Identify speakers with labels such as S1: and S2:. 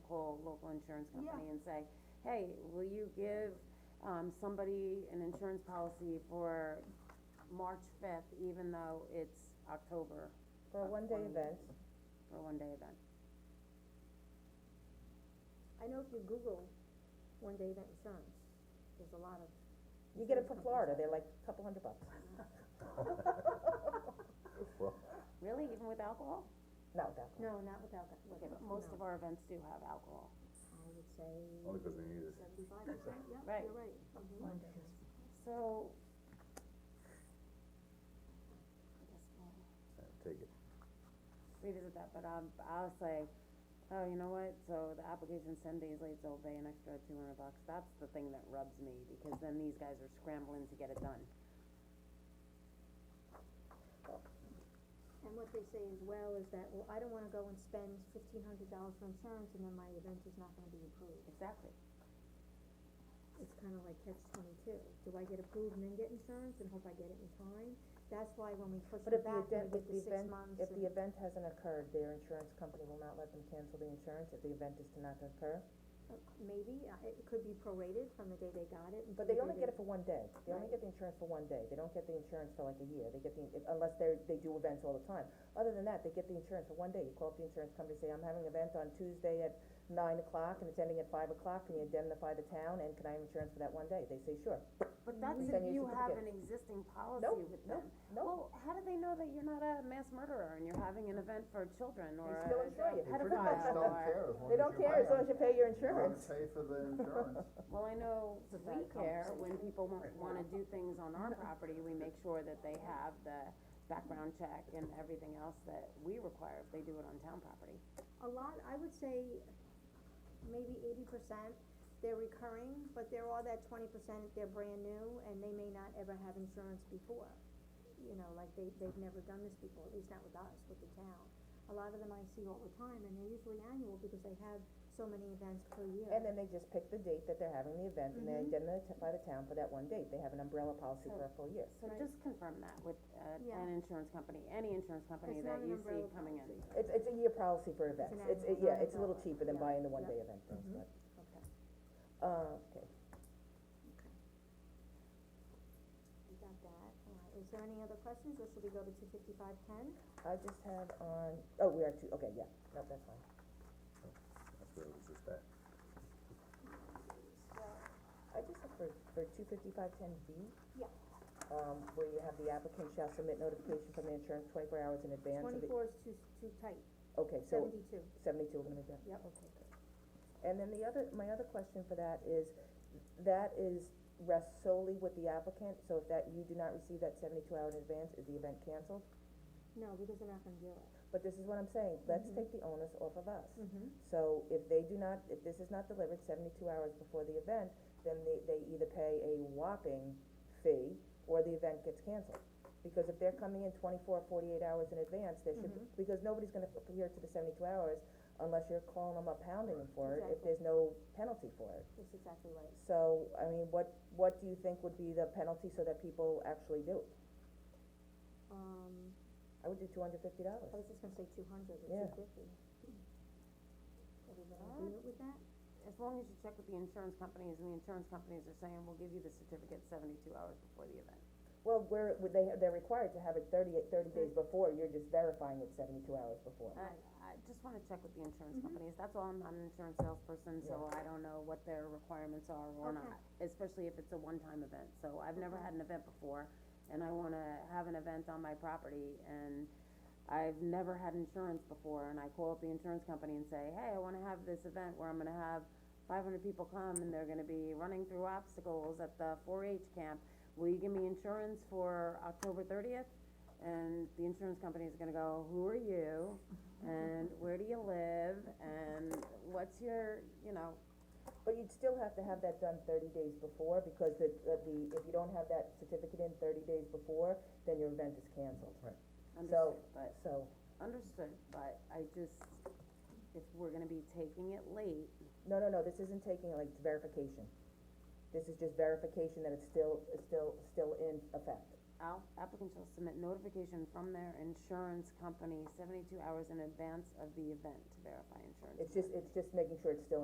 S1: insurance company and say, hey, will you give, um, somebody an insurance policy for March fifth, even though it's October
S2: For a one-day event,
S1: for a one-day event?
S3: I know if you Google one day event insurance, there's a lot of,
S2: you get it for Florida, they're like a couple hundred bucks.
S4: Well,
S1: Really, even with alcohol?
S2: No, definitely.
S3: no, not without that,
S1: Okay, but most of our events do have alcohol.
S3: I would say
S4: only because we need it.
S3: seventy-five percent, yeah,
S1: Right.
S3: you're right.
S2: Mm-hmm.
S3: Mhm.
S1: So. I guess we'll
S4: Uh, Take it.
S1: revisit that, but um, I'll say, oh, you know what, so the application's ten days late, so I'll pay an extra two hundred bucks, that's the thing that rubs me, because then these guys are scrambling to get it done.
S3: And what they say as well is that, well, I don't wanna go and spend fifteen hundred dollars for insurance and then my event is not gonna be approved.
S1: Exactly.
S3: It's kinda like catch twenty-two, do I get approved and then get insurance and hope I get it in time? That's why when we push
S2: But
S3: it
S2: if the
S3: back,
S2: event,
S3: we get
S2: if the
S3: the six
S2: event,
S3: months
S2: if the
S3: and,
S2: event hasn't occurred, their insurance company will not let them cancel the insurance if the event is to not occur.
S3: uh, maybe, uh, it could be prorated from the day they got it.
S2: But they only get it for one day, they only get the insurance for one day, they don't get the insurance for like a year, they get the, if- unless they're, they do events all the time. Other than that, they get the insurance for one day, you call up the insurance company, say, I'm having an event on Tuesday at nine o'clock, and it's ending at five o'clock, can you indemnify the town, and can I have insurance for that one day? They say, sure.
S1: But that's
S2: Send
S1: if
S2: you a
S1: you have an
S2: certificate.
S1: existing policy
S2: Nope,
S1: with them.
S2: nope, nope.
S1: Well, how do they know that you're not a mass murderer and you're having an event for children or
S2: still
S1: a
S2: insure you.
S1: pedophile
S2: They
S1: or?
S2: pretty
S4: much don't care as long
S2: They
S4: as
S2: don't
S4: you
S2: care as
S4: buy
S2: long as you pay your
S4: Gotta
S2: insurance.
S4: pay for the insurance.
S1: Well, I know we
S3: that
S1: care,
S3: conversation.
S1: when people won't wanna do things on our property, we make sure that they have the background check and everything else that we require if they do it on town property.
S3: A lot, I would say maybe eighty percent, they're recurring, but there are that twenty percent, they're brand new and they may not ever have insurance before. You know, like they, they've never done this before, at least not with us, with the town. A lot of them I see all the time and they're usually annual because they have so many events per year.
S2: And then they just pick the date that they're having the event, and they
S3: Mm-hmm.
S2: indemnify the town for that one date, they have an umbrella policy for a full year.
S1: So
S3: Right.
S1: just confirm that with, uh,
S3: Yeah.
S1: an insurance company, any insurance company
S3: It's
S1: that
S3: not an
S1: you see
S3: umbrella
S1: coming in.
S3: policy.
S2: It's, it's a year policy for events,
S3: an
S2: it's, it-
S3: annual,
S2: yeah,
S3: not
S2: it's a little
S3: umbrella.
S2: cheaper than
S3: Yeah,
S2: buying the
S3: yeah. Mm-hmm.
S2: one-day event, things, but,
S3: Okay,
S2: uh, okay.
S3: we got that. All right, is there any other questions or should we go to two fifty-five ten?
S2: I just have on, oh, we are two, okay, yeah, no, that's fine.
S4: That's where it was just at.
S2: I just have for, for two fifty-five ten B.
S3: Yeah.
S2: Um, where you have the applicant shall submit notification from the insurance twenty-four hours in advance of the,
S3: Twenty-four is too, too tight,
S2: okay, so, Oh.
S3: seventy-two,
S2: seventy-two, we're gonna do.
S3: yep.
S2: And then the other, my other question for that is, that is, rests solely with the applicant, so if that, you do not receive that seventy-two hour in advance, is the event canceled?
S3: No, because they're not gonna do it.
S2: But this is what I'm saying, let's take the onus off of us.
S3: Mm-hmm.
S2: So if they do not, if this is not delivered seventy-two hours before the event, then they, they either pay a whopping fee or the event gets canceled. Because if they're coming in 24, 48 hours in advance, there should, be- because nobody's gonna adhere to the seventy-two hours unless you're calling them up pounding them for it, if
S3: Exactly.
S2: there's no penalty for it.
S3: That's exactly right.
S2: So, I mean, what, what do you think would be the penalty so that people actually do it?
S3: Um,
S2: I would do two hundred fifty dollars.
S3: I was just gonna say two hundred or
S2: Yeah.
S3: two fifty. Everybody agreement with that?
S1: As long as you check with the insurance companies, and the insurance companies are saying, we'll give you the certificate seventy-two hours before the event.
S2: Well, where, would they, they're required to have it 38 30 days before, you're just verifying it seventy-two hours before.
S1: I, I just wanna check with the insurance companies, that's all, I'm not an insurance salesperson, so I don't know what their requirements are or
S3: Okay.
S1: not, especially if it's a one-time event, so I've never had an event before, and I wanna have an event on my property, and I've never had insurance before, and I call up the insurance company and say, hey, I wanna have this event where I'm gonna have five hundred people come, and they're gonna be running through obstacles at the four H camp, will you give me insurance for October thirtieth? And the insurance company is gonna go, who are you? And where do you live? And what's your, you know,
S2: But you'd still have to have that done thirty days before, because the, the, the- if you don't have that certificate in thirty days before, then your event is canceled.
S1: understood, but,
S2: So,
S1: understood, but I just, if we're gonna be taking it late,
S2: no, no, no, this isn't taking, like, it's verification. This is just verification that it's still, it's still, still in effect.
S1: al- applicants shall submit notification from their insurance company seventy-two hours in advance of the event to verify insurance.
S2: It's just, it's just making sure it's still